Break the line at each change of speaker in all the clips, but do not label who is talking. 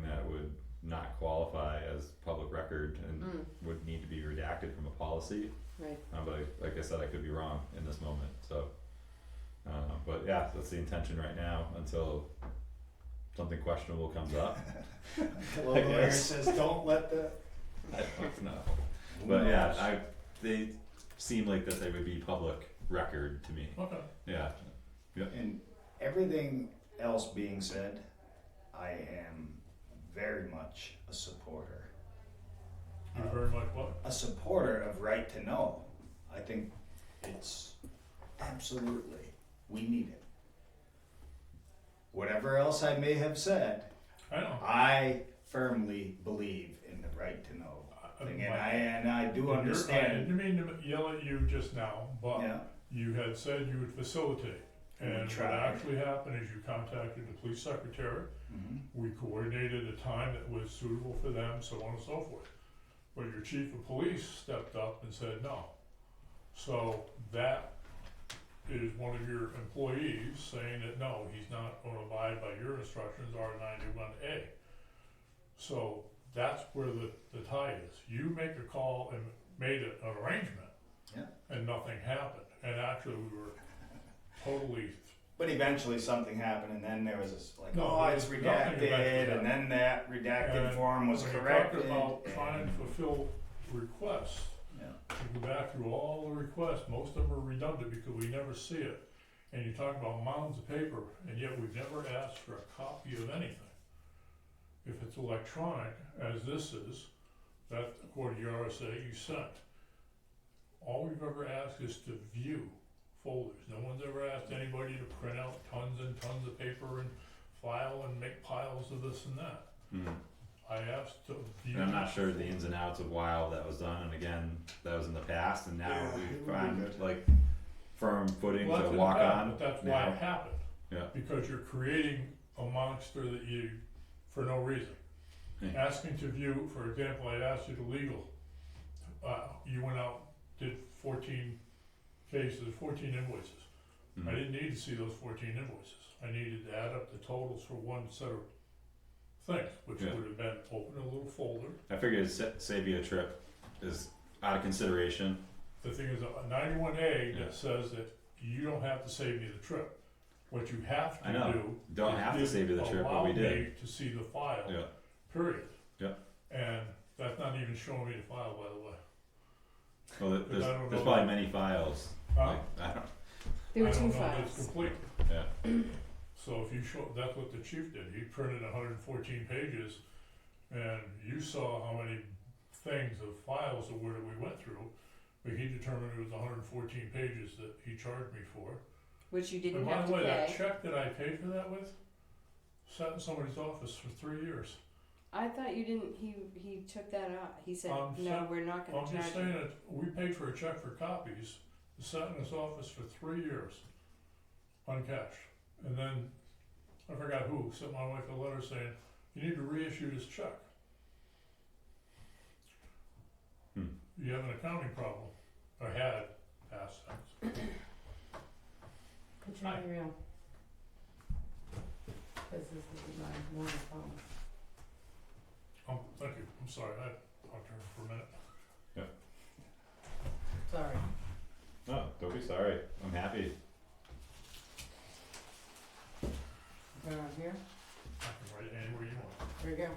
Mm.
redacted from a policy,
Mm, right,
uh, but I, like I said, I could be wrong in this moment, so. Uh, but yeah, that's the intention right now until something questionable comes up,
Hello,
I
lawyer
guess.
says, don't let the.
I don't know.
Who
But yeah,
knows?
I, they seem like that they would be public record to me,
Okay.
yeah,
And everything else being said, I am very much a supporter.
You're very much what?
a supporter of right to know. I think it's absolutely, we need it. Whatever else I may have said,
I know.
I firmly believe in the right to know.
Uh,
I- I mean,
thing, And
my-
I, and I do
you're- I
understand,
didn't mean to yell at you just now, but
yeah,
you had said you would facilitate.
We
And what
tried.
actually happened is you contacted the police secretary.
mhm,
We coordinated a time that was suitable for them, so on and so forth. But your chief of police stepped up and said no. So that is one of your employees saying that no, he's not gonna abide by your instructions, R ninety-one A. So that's where the, the tie is. You make a call and made an arrangement.
Yeah.
And nothing happened. And actually, we were totally
but eventually something happened and then there was this like,
No,
oh, it's
there's nothing
redacted,
about
and then that redacted
And
form was
When you
corrected.
Talk about trying to
and-
fulfill requests,
Yeah.
you go back through all the requests, most of them are redundant because we never see it. And you talk about mounds of paper, and yet we've never asked for a copy of anything. If it's electronic, as this is, that according to your RSA, you sent. All we've ever asked is to view folders. No one's ever asked anybody to print out tons and tons of paper and file and make piles of this and that.
Hmm.
I asked to view.
And I'm not sure the ins and outs of why all that was done, and again, that was in the past, and now
Yeah, it would be
we've found
good.
like firm footing
Well,
to
that's in
walk
the past,
on.
But that's why
now.
it happened.
Yeah.
Because you're creating a monster that you, for no reason.
Yeah.
Asking to view, for example, I asked you to legal, uh, you went out, did fourteen cases, fourteen invoices. I
Mhm.
didn't need to see those fourteen invoices, I needed to add up the totals for one set of things, which
Yeah.
would have been open a little folder.
I figured sa- save you a trip is out of consideration.
The thing is, a ninety-one A
Yeah.
that says that you don't have to save me the trip, what you have
I
to
know.
do
Don't have to
didn't
save you the trip, but
allow
we did.
me To see the file.
Yeah.
Period.
Yeah.
And that's not even showing me the file, by the way.
Well, th-
But I
there's,
don't
there's
know.
probably many files.
Huh?
Like, I don't.
there were
I
two
don't know if it's
files,
complete.
Yeah.
So if you show, that's what the chief did, he printed hundred and fourteen pages, and you saw how many things of files of where we went through, but he determined it was hundred and fourteen pages that he charged me for.
which you
And
didn't
by
have
the
to
way, that
pay.
check that I paid for that with, sat in somebody's office for three years.
I thought you didn't, he, he took that out, he said,
Um,
no,
so-
we're not gonna
I'm
charge you.
just saying that we paid for a check for copies, it sat in his office for three years, uncashed. And then, I forgot who, sent my wife a letter saying, you need to reissue this check.
Hmm.
You have an accounting problem, or had, past tense.
Could you be real? Cause this is my morning phone.
Um, thank you, I'm sorry, I talked to her for a minute.
Sorry.
No, don't be sorry. I'm happy.
Turn on here.
I can write it anywhere you want.
There you go.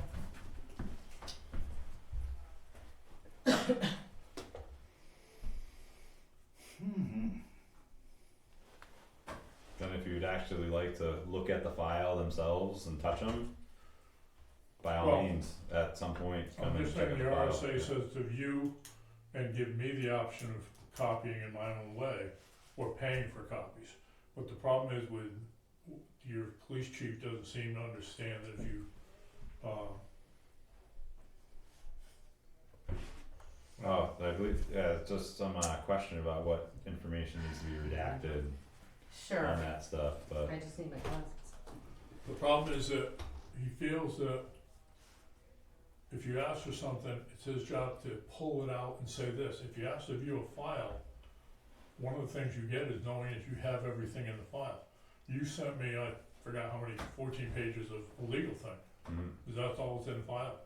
Hmm,
Then if you'd actually like to look at the file themselves and touch them, by all
Well,
means, at some point, come
I'm
and
just
check
saying
out
the
the file.
RSA says to view and give me the option of copying in my own way or paying for copies. But the problem is with, your police chief doesn't seem to understand that if you, um,
Oh, I believe, yeah, just some, uh, question about what information needs to be redacted on
Sure.
that stuff, but.
I just need my glasses.
The problem is that he feels that if you ask for something, it's his job to pull it out and say this. If you ask to view a file, one of the things you get is knowing that you have everything in the file. You sent me, I forgot how many, fourteen pages of a legal thing,
Mhm.
because that's all that's in the file.